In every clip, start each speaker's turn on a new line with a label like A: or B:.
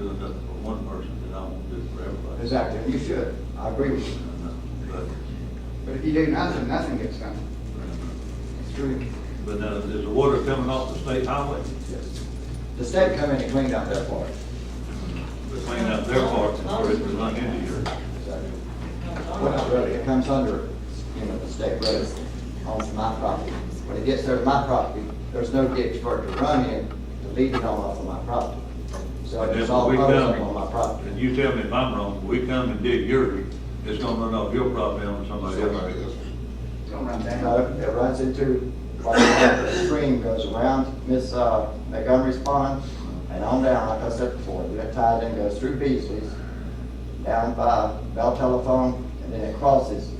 A: nothing for one person, then I won't do it for everybody.
B: Exactly, and you should, I agree with you.
A: But,
B: But if you do nothing, nothing gets done. It's true.
A: but now, is the water coming off the state highway?
B: The state come in and cleaned up that part.
A: They're cleaning up their part, or it's not into yours.
B: Exactly. Well, not really, it comes under, you know, the state road on my property. When it gets there to my property, there's no ditch for it to run in to lead it on off of my property. So
A: But
B: it's
A: then
B: all
A: we
B: frozen
A: come-
B: on my property.
A: And you tell me if I'm wrong, we come and dig yours, it's gonna run off your property on somebody
C: Somebody
A: else.
C: else.
D: Don't run
B: No,
D: down.
B: it runs into, like, the stream goes around Miss uh, Montgomery's pond and on down, like I said before, that ties in, goes through Beasley's, down by Bell Telephone, and then it crosses,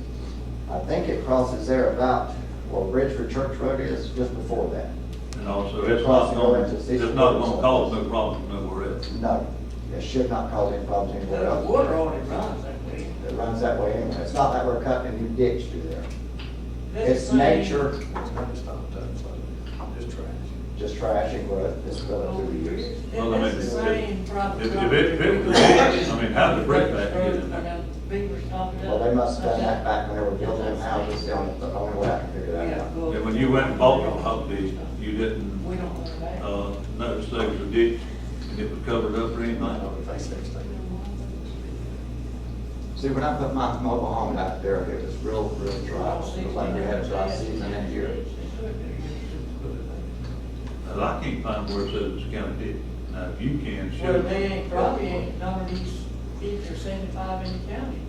B: I think it crosses there about where Bridgeford Church Road is, just before that.
A: And also, it's not gonna, it's not gonna cause no problems nowhere else.
B: No, it should not cause any problems anywhere
D: The
B: else.
D: water only runs that way.
B: It runs that way anyway. It's not like we're cutting a new ditch through there.
D: That's
B: It's
D: the same.
B: nature, just trash and growth that's going
D: Over
B: through the
D: here.
B: years.
A: Well, I mean,
D: That's the same property.
A: If, if it, if it was big, I mean, how did the break back get in there?
D: Beaver's talking
B: Well, they must have done that back when they were building them houses, the only, the only way I can figure that out.
A: And when you went and bought your property, you
D: We
A: didn't,
D: don't want that.
A: uh, notice there was a ditch, and it was covered up or anything?
B: See, when I put my mobile home out there, it was real, real dry, it was like we had a dry season that year.
A: Well, I can't find where it says it's county ditch. Now, if you can, show.
D: Well,
A: me.
D: they ain't probably ain't none of these fifty or seventy-five in the county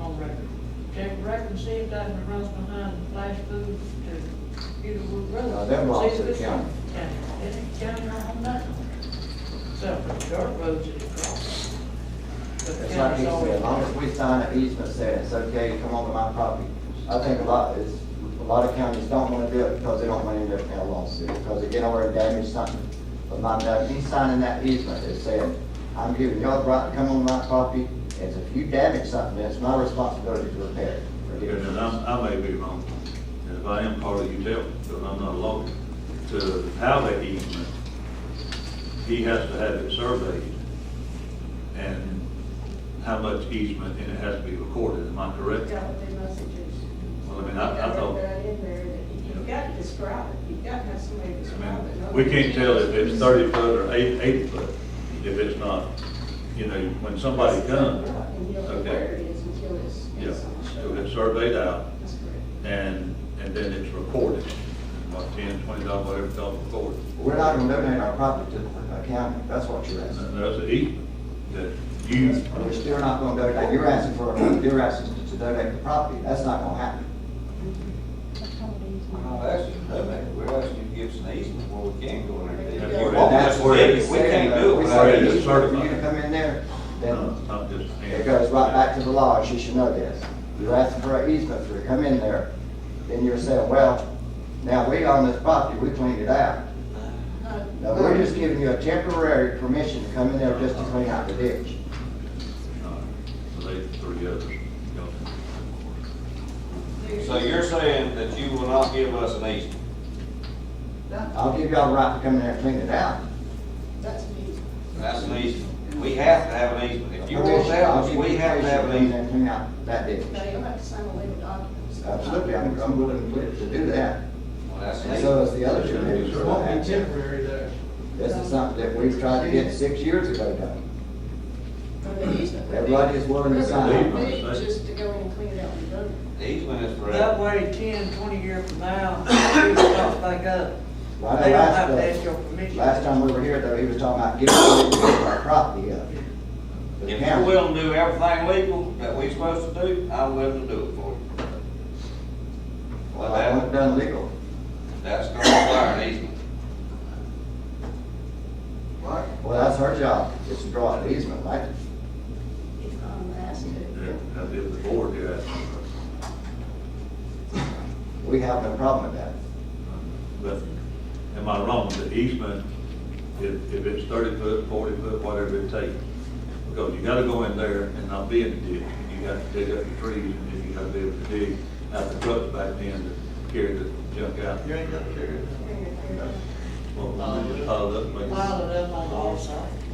D: on record. Check the record and see if that one runs behind Flash Foods to Beautiful Road.
B: No, them belongs
D: See
B: to the
D: if it's-
B: county.
D: Yeah, it ain't county on them nothing. Except for dirt roads that it crosses. But the
B: It's like
D: county's
B: he said,
D: always-
B: as long as we sign an easement saying it's okay to come onto my property, I think a lot, is, a lot of counties don't wanna do it because they don't wanna end up in a lawsuit, because they get over and damage something. But my, now, me signing that easement is saying, I'm giving y'all the right to come on my property, and if you damage something, it's my responsibility to repair it. or get it
A: And
B: fixed."
A: I'm, I may be wrong, and if I am, Carly, you tell, me, because I'm not a lawyer, to how that easement, he has to have it surveyed, and how much easement, and it has to be recorded, am I correct?
E: Got what they messages.
A: Well, I mean, I, I thought,
E: That in there, that You've got to describe it, you've got to have somebody
A: I
E: describe
A: mean,
E: it.
A: we can't tell if it's thirty foot or eight, eight foot, if it's not, you know, when somebody comes,
E: And you don't know where
A: okay,
E: it is until it's.
A: yeah,
E: it's on show.
A: so it's surveyed out,
E: That's correct.
A: and, and then it's recorded, what, ten, twenty dollars, whatever it's called, recorded.
B: We're not gonna donate our property to the county, that's what you're asking.
A: And there's an easement that you,
B: We're still not gonna donate, you're asking for, you're asking to donate the property, that's not gonna happen.
F: I'm not asking you to do that, we're asking you to give us an easement where we can go in there.
A: Yeah.
F: Well, That's where it is, we can't do it
B: We
F: without
B: said,
F: an
B: if
F: easement.
B: you need to come in there,
A: no,
B: then
A: I'm just.
B: it goes right back to the law, and she should know this. You're asking for an easement, if you come in there, then you're saying, well, now we own this property, we cleaned it out.
E: Uh,
B: No, we're just giving you a temporary permission to come in there just to clean out the ditch.
A: No, So they Uh, three others. Y'all-
F: So you're saying that you will not give us an easement?
B: I'll give y'all the right to come in there and clean it out.
E: That's me.
F: That's an easement. We have to have an easement. If you want that,
B: I'll give you
F: we have to
B: permission
F: have
B: come
F: an
B: in
F: easement.
B: there and Clean out that ditch.
E: Now, you'll have to sign a legal document. so-
B: Absolutely, I'm, I'm willing to to do that.
F: Well, that's an
B: And so is
F: easement.
B: the other two neighbors.
A: It
G: Won't be temporary though.
B: This is something that we've tried to get six years ago done.
E: But the easement would be-
B: Everybody is willing to sign.
E: It would be Just to go in and clean it out and done.
F: The easement is
D: That
F: forever.
D: way, ten, twenty years from now, people come back up.
B: Well, I know
D: They don't
B: last,
D: have to
B: uh,
D: ask your permission.
B: Last time we were here, though, he was talking about giving away our property up. The
F: If
B: county.
F: you're willing to do everything legal that we are supposed to do, I'm willing to do it for you.
B: Well, I want it
F: Well, that,
B: done legal.
F: that's gonna require an easement.
B: Well, that's her job, is to draw an easement, right?
E: If I'm asked to.
A: Now, if the board here asks,
B: We have no problem with that.
A: uh, but am I wrong, the easement, if, if it's thirty foot, forty foot, whatever it takes, because you gotta go in there and not be in the ditch, and you gotta dig up the trees, and then you gotta be able to dig out the trucks back then to carry the junk out.
G: You ain't gonna carry it.
A: ờ, Well, just pile it up, make it-
D: Pile it up on all sides.